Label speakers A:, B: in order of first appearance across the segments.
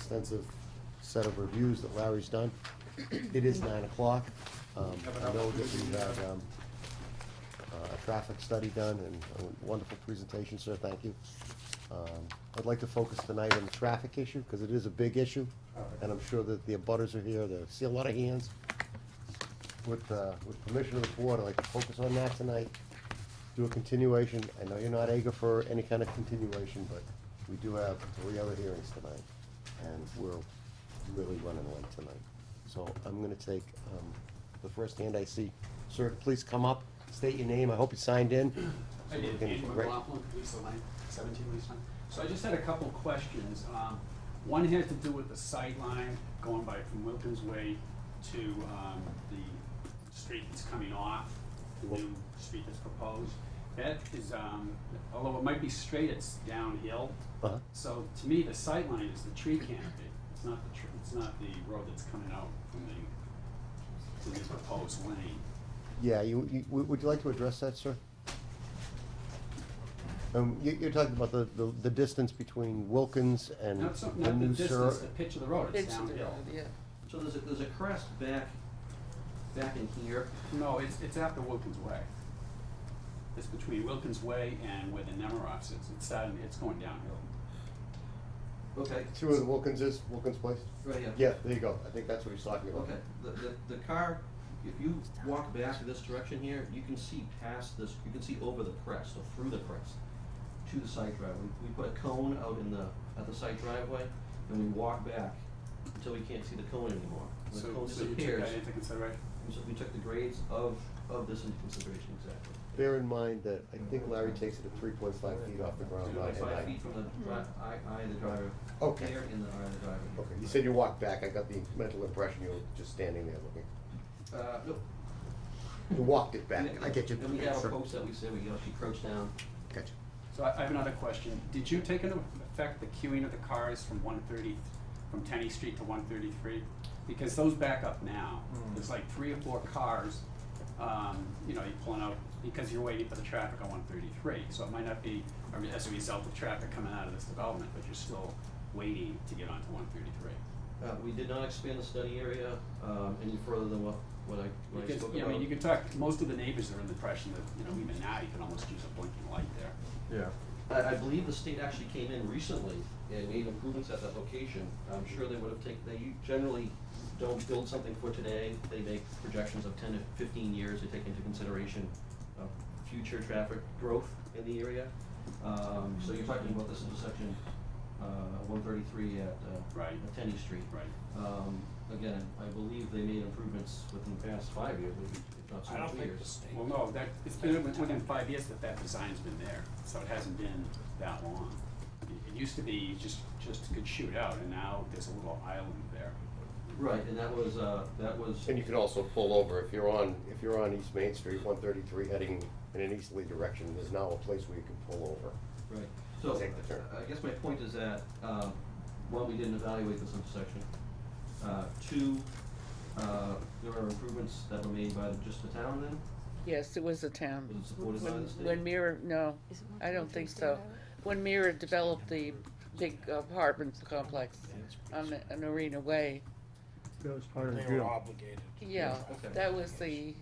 A: extensive set of reviews that Larry's done. It is nine o'clock. Um, I know that we had um, uh, a traffic study done and a wonderful presentation, sir, thank you. Um, I'd like to focus tonight on the traffic issue, because it is a big issue, and I'm sure that the abutters are here, they see a lot of hands. With, uh, with permission of the board, I'd like to focus on that tonight, do a continuation. I know you're not eager for any kind of continuation, but we do have three other hearings tonight, and we're really running late tonight. So I'm gonna take, um, the first hand I see. Sir, please come up, state your name, I hope you signed in.
B: I did,
A: Great.
B: Andrew McLaughlin, Lisa Lane, seventeen Lisa Lane. So I just had a couple of questions. Um, One had to do with the sight line going by from Wilkins Way to um, the street that's coming off, the new street that's proposed. That is, um, although it might be straight, it's downhill.
A: Uh-huh.
B: So to me, the sight line is the tree canopy. It's not the, tr- it's not the road that's coming out from the, from the proposed lane.
A: Yeah, you, you, would would you like to address that, sir? Um, you, you're talking about the, the, the distance between Wilkins and
B: Not so,
A: the
B: not the
A: new
B: distance,
A: sur-
B: the pitch of the road, it's
C: It's the
B: downhill.
C: road, yeah.
D: So there's a, there's a crest back, back in here.
B: No, it's, it's after Wilkins Way. It's between Wilkins Way and where the Nemiroff is. It's starting, it's going downhill.
D: Okay,
A: See where the Wilkins is, Wilkins Place?
D: right here.
A: Yeah, there you go, I think that's what he's talking about.
D: Okay, the, the, the car, if you walk back this direction here, you can see past this, you can see over the crest or through the crest to the side drive. We, we put a cone out in the, at the side driveway and we walk back until we can't see the cone anymore. And The
B: So,
D: cone
B: so you took
D: disappears.
B: that into consideration?
D: And so we took the grades of, of this into consideration exactly.
A: Bear in mind that I think Larry takes it at three point five feet off the ground line.
D: Like
A: Oh, and I-
D: Five feet from the, dri- eye, eye of the driver.
A: Okay.
D: Here in the eye of the driver.
A: Okay, you said you walked back, I got the mental impression you were just standing there looking.
D: Uh, nope,
A: You walked it back,
D: And-
A: I get you.
D: And we have a
A: Sure.
D: post that we say, we, you know, she crouched down.
A: Gotcha.
B: So I, I have another question. Did you take into effect the queuing of the cars from one thirty, from Tenny Street to one thirty-three? Because those back up now. There's like three or four cars, um, you know, you're pulling out, because you're waiting for the traffic on one thirty-three. So it might not be, I mean, as a result of traffic coming out of this development, but you're still waiting to get onto one thirty-three.
D: Uh, we did not expand the study area, um, any further than what, what I,
B: You
D: what I
B: can,
D: spoke about.
B: yeah, I mean, you can talk, most of the neighbors are in the impression that, you know, even now, you can almost use a blinking light there.
D: Yeah. I, I believe the state actually came in recently and made improvements at that location. I'm sure they would have taken, they u- generally don't build something for today. They make projections of ten to fifteen years. They take into consideration uh, future traffic growth in the area. Um, so you're talking about this intersection, uh, one thirty-three at, uh,
B: Right.
D: at Tenny Street.
B: Right.
D: Um, again, I believe they made improvements within the past five years, maybe, if not so many years.
B: Well, no, that, it's been within five years that that design's been there, so it hasn't been that long. It- It used to be you just, just could shoot out, and now there's a little island there.
D: Right, and that was, uh, that was.
A: And you can also pull over, if you're on, if you're on East Main Street, one thirty-three heading in an easterly direction, there's now a place where you can pull over.
D: Right, so,
A: Take the turn.
D: I guess my point is that, um, one, we didn't evaluate this intersection. Uh, two, uh, there are improvements that were made by the- just the town then,
C: Yes, it was a town.
D: was it supported by
C: When-
D: the state?
C: When Mira, no, I don't think so. When Mira developed the big apartment complex on, on Arena Way,
E: That was part of the
F: They were
E: deal.
F: obligated.
C: yeah,
D: Okay.
C: that was the,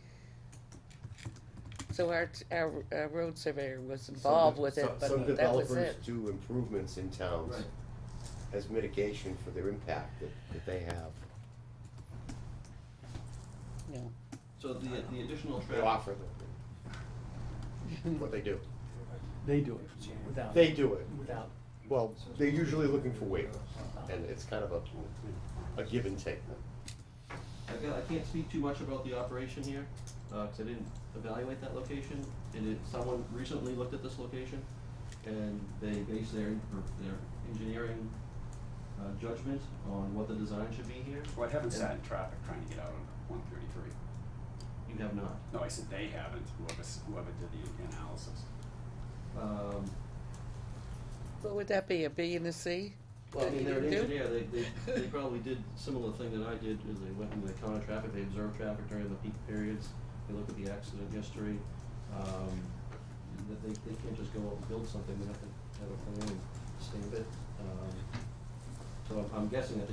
C: so our, t- our, our road surveyor was involved with it,
A: Some-
C: but that was
A: Some developers
C: it.
A: do improvements in towns
D: Right.
A: as mitigation for their impact that, that they have.
C: No.
D: so the, the additional
A: They
D: traffic,
A: offer them, what they do.
E: They do it without,
A: They do it.
E: without.
A: Well, they're usually looking for waivers, and it's kind of a, a give and take.
D: I got, I can't speak too much about the operation here, uh 'cause cause I didn't evaluate that location. And it, someone recently looked at this location, and they based their, their engineering, uh, judgment on what the design should be here.
A: Oh,
B: Well, I haven't
D: And
B: sat in traffic trying to get out on one thirty-three.
D: You have not.
B: No, I said they haven't, whoever, s- whoever did the analysis.
D: Um,
C: What would that be, a B and a C?
D: Well, I mean, they're an
C: Do?
D: engineer, they, they, they probably did similar thing that I did, is they went and they counted traffic, they observed traffic during the peak periods, they looked at the accident history, um, that they, they can't just go out and build something, they have to have a plan and stamp it, um, So I'm guessing that